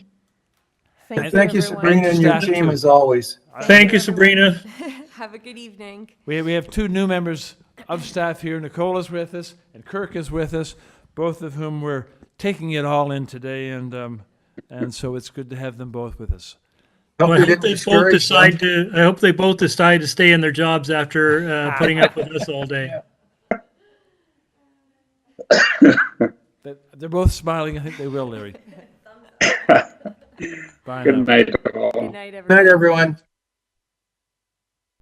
Thank you, Thank you, everyone. Sabrina, and your Staff too. team as always. Thank you, Sabrina. Have a good evening. We, we have two new members of staff here. Nicole is with us and Kirk is with us, both of whom were taking it all in today. And, um, and so it's good to have them both with us. Well, Hope I you hope didn't they both discourage them. decide to, I hope they both decide to stay in their jobs after uh, putting up with us all day. They- They're both smiling. I think they will, Larry. Bye now. Good night, all. Good night, everyone. Good night, everyone.